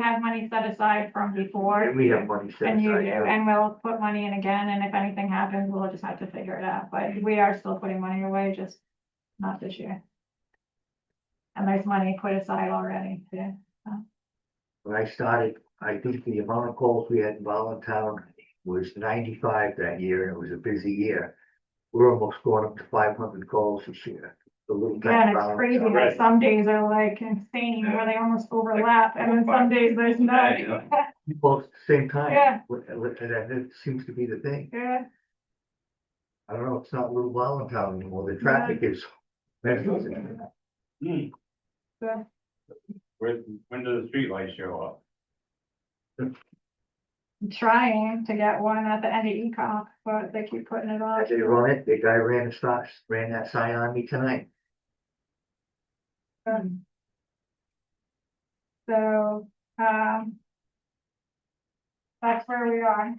have money set aside from before. And we have money set And you do, aside. yeah. and we'll put money in again, and if anything happens, we'll just have to figure it out, but we are still putting money away, just not this year. And there's money put aside already, yeah. When I started, I think the amount of calls we had in Volantown was ninety-five that year, and it was a busy year. We're almost going up to five hundred calls this year. The little Yeah, tiny and it's crazy, Volantown. like some days are like insane, where they almost overlap, and then some days there's no. Both at the same time. Yeah. Wh- wh- And that it seems to be the thing. Yeah, I don't know, it's not little Volantown anymore. The traffic is. Well, Hmm. Yeah. When, when do the streetlights show up? I'm trying to get one at the end of ECOM, but they keep putting it off. They run it, the guy ran a stop, ran that sign on me tonight. Um, So, um. That's where we are.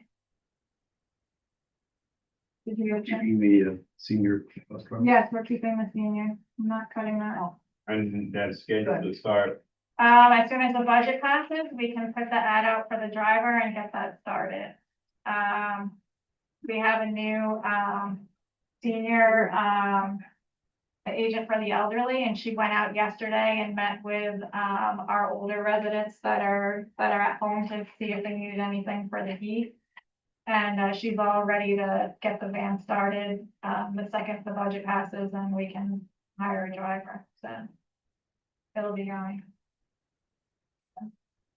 Did you get your- the senior. Yes, we're keeping the senior, I'm not cutting that off. And that's scheduled to start, Um, as soon as the budget passes, we can put the ad out for the driver and get that started. Um, we have a new, um, senior, um, agent for the elderly, and she went out yesterday and met with, um, our older residents that are, that are at home to see if they needed anything for the heat. And, uh, she's all ready to get the van started, um, the second the budget passes, and we can hire a driver, so it'll be going.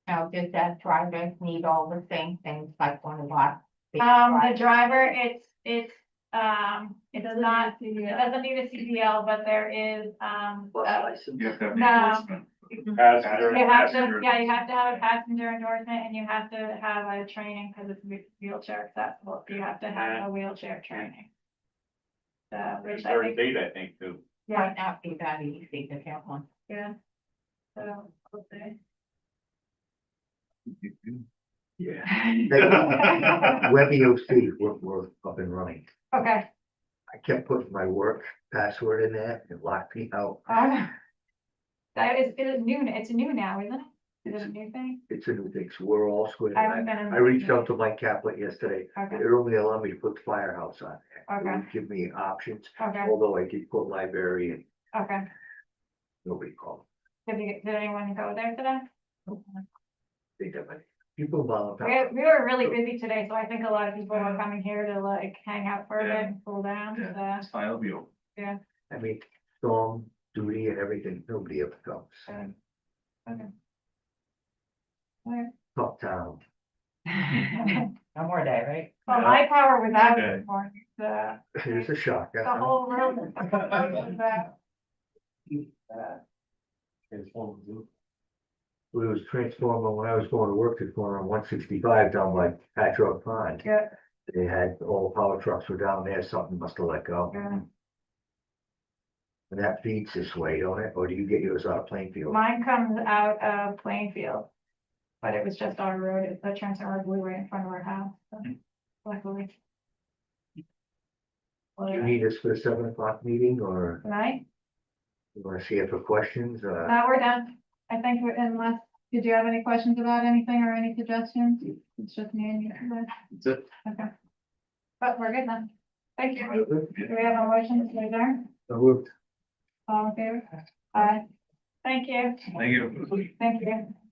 Now, does that driver need all the same things like one of our? big Um, the drivers? driver, it's, it's, um, it does not, it doesn't need a CDL, but there is, um, uh, no. passenger, You have to, yeah, you have to have a passenger endorsement and you have to have a training because it's whe- wheelchair accessible. You have to have a wheelchair training. So, which I third think, date, I think, too. yeah, Might not be that easy to get one. yeah. So, we'll see. Yeah. E WebEOC, we're, we're up and running. Okay, I kept putting my work password in there, it locked me out. um, that is, it is new, it's new now, isn't it? Is it a new thing? It's a new thing, so we're all squared. I haven't I been. in- I reached out to Mike Caplet yesterday, Okay, it only allowed me to put the firehouse on there. It Okay. would Give me options, okay, although I did put library and okay. nobody called. Did you, did anyone go there today? They did, but people about. We, we were really busy today, so I think a lot of people were coming here to like hang out for a bit and cool down, so. I'll be. I mean, storm duty and everything, nobody ever comes. Alright. Top town. No more day, right? Well, my power was out this morning, the, It's a shock. I the don't know. whole room. the whole room was out. It's one of the- It was transformer when I was going to work, it's going on one sixty-five down by Patrick Pond. Yeah. They had all power trucks were down there, something must have let go. Yeah. And that feeds this way, don't it? Or do you get yours out of Plainfield? Mine comes out of Plainfield, but it was just our road, It- the transformer blew right in front of our house, so luckily. Do you Well, need us for the seven o'clock meeting or Tonight, you wanna see it for questions Uh now we're done, I think, we're unless, did you have any questions about anything or any suggestions? It's just me and you. today. Okay. But we're good then. Thank you. Do we have a motion to adjourn? I moved. All in favor? Aye. Thank you. Thank you. Thank you.